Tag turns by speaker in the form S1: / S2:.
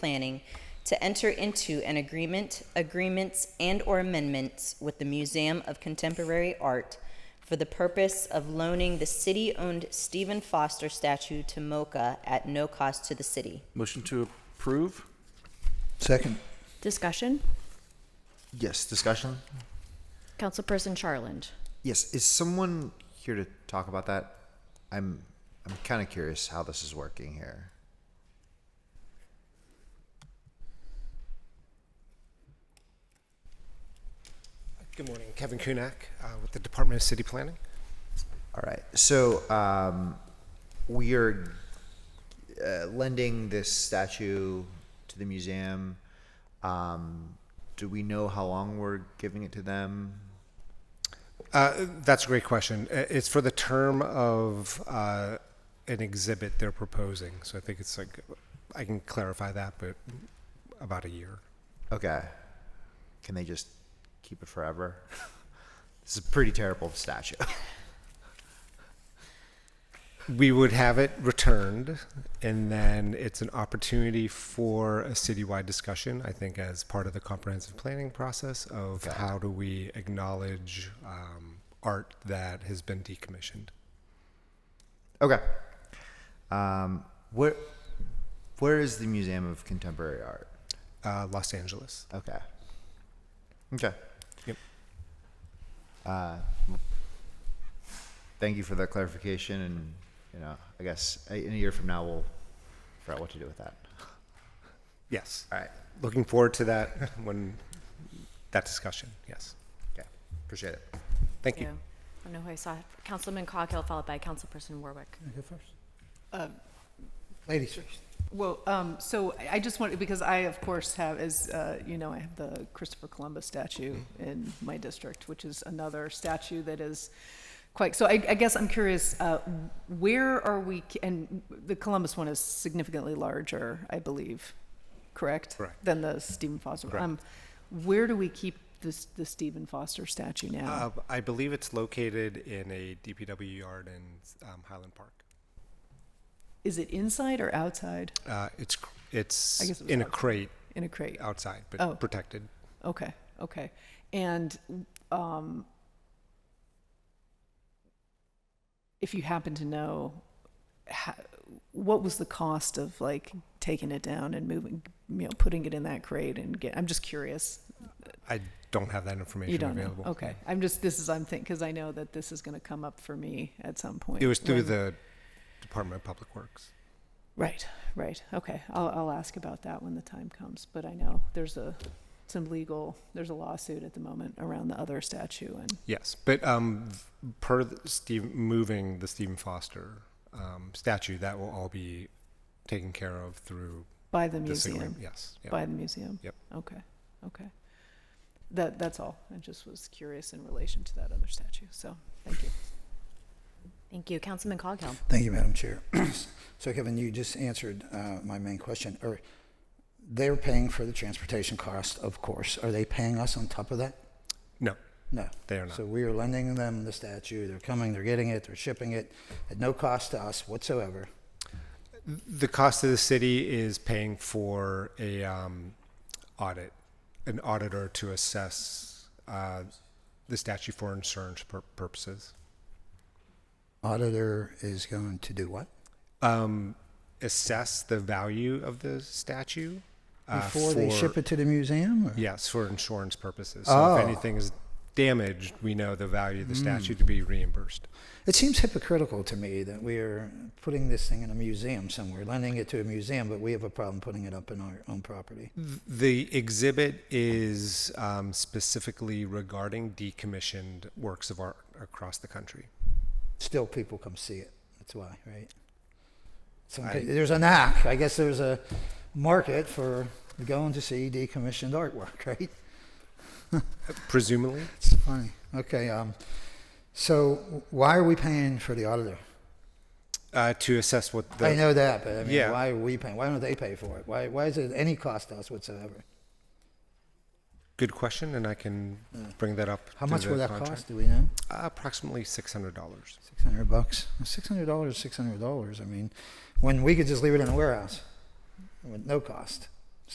S1: planning to enter into an agreement, agreements, and/or amendments with the Museum of Contemporary Art for the purpose of loaning the city-owned Stephen Foster statue to MoCA at no cost to the city.
S2: Motion to approve?
S3: Second.
S4: Discussion?
S5: Yes, discussion?
S4: Councilperson Charland.
S5: Yes, is someone here to talk about that? I'm I'm kind of curious how this is working here.
S6: Good morning, Kevin Kunak uh, with the Department of City Planning.
S5: All right. So um, we are uh, lending this statue to the museum. Um, do we know how long we're giving it to them?
S6: Uh, That's a great question. Uh, It's for the term of uh, an exhibit they're proposing, so I think it's like, I can clarify that, but about a year.
S5: Okay. Can they just keep it forever? this is a pretty terrible statue.
S6: We would have it returned, and then it's an opportunity for a citywide discussion, I think, as part of the comprehensive planning process of how do we acknowledge um, art that has been decommissioned.
S5: Okay. Um, where where is the Museum of Contemporary Art?
S6: Uh, Los Angeles.
S5: Okay. Okay.
S6: Yep.
S5: Uh, thank you for that clarification, and you know, I guess uh, in a year from now we'll figure out what to do with that.
S6: Yes.
S5: All right.
S6: looking forward to that when that discussion. Yes.
S5: Okay. Appreciate it.
S6: Thank
S4: I
S6: you.
S4: don't know who I saw. Councilman Coghill followed by Councilperson Warwick.
S6: Mm.
S3: Ladies.
S7: Well, um, so I- I just wanted, because I, of course, have, as, uh, you know, I have the Christopher Columbus statue
S6: Mm-hmm.
S7: in my district, which is another statue that is quite, so I, I guess I'm curious, uh, where are we, and the Columbus one is significantly larger, I believe, correct?
S6: Correct.
S7: Than the Stephen Foster. Um, Where do we keep this, the Stephen Foster statue now?
S6: Uh, I believe it's located in a DPW yard in um, Highland Park.
S7: Is it inside or outside
S6: Uh, it's cr- it's
S7: I guess it was
S6: in a
S7: outside.
S6: crate
S7: in a crate?
S6: outside, but
S7: Oh.
S6: protected.
S7: Okay, okay. And um, if you happen to know, ha- what was the cost of like taking it down and moving, you know, putting it in that crate and get, I'm just curious.
S6: I don't have that information
S7: You don't know?
S6: available.
S7: Okay. I'm just, this is, I'm thinking, because I know that this is going to come up for me at some point.
S6: It was through
S7: when-
S6: the Department of Public Works.
S7: Right, right. Okay. I'll, I'll ask about that when the time comes, but I know there's a, some legal, there's a lawsuit at the moment around the other statue and
S6: Yes, but um, per the Steve moving the Stephen Foster um, statue, that will all be taken care of through
S7: by the
S6: this
S7: museum.
S6: agreement. Yes. yeah.
S7: By the museum?
S6: Yep.
S7: Okay, okay. That, that's all. I just was curious in relation to that other statue, so, thank you.
S4: Thank you. Councilman Coghill.
S3: Thank you, Madam Chair. So Kevin, you just answered uh, my main question. Are they're paying for the transportation cost, of course. Are they paying us on top of that?
S6: No.
S3: No.
S6: They are not.
S3: So we are lending them the statue. They're coming, they're getting it, they're shipping it at no cost to us whatsoever.
S6: The cost of the city is paying for a um, audit, an auditor to assess uh, the statute for insurance pur- purposes.
S3: Auditor is going to do what?
S6: Um, assess the value of the statue uh,
S3: Before they ship it to the museum? or-
S6: Yes, for insurance purposes. So if
S3: Oh. Hmm.
S6: anything is damaged, we know the value of the statue to be reimbursed.
S3: It seems hypocritical to me that we are putting this thing in a museum somewhere, lending it to a museum, but we have a problem putting it up in our own property.
S6: The exhibit is um, specifically regarding decommissioned works of art across the country.
S3: Still, people come see it. That's why, right? Some,
S6: I-
S3: pe- there's a knack. I guess there's a market for going to see decommissioned artwork, right?
S6: Presumably,
S3: It's funny. Okay. Um, so why are we paying for the auditor?
S6: uh, to assess what the
S3: I know that, but I mean,
S6: Yeah.
S3: why are we paying? Why don't they pay for it? Why, why is it any cost to us whatsoever?
S6: Good question, and I can bring that up.
S3: Mm. How
S6: to
S3: much
S6: the
S3: will that
S6: contract.
S3: cost? Do we know?
S6: Uh, approximately six hundred dollars.
S3: Six hundred bucks. Six hundred dollars. Six hundred dollars. I mean, when we could just leave it in a warehouse with no cost.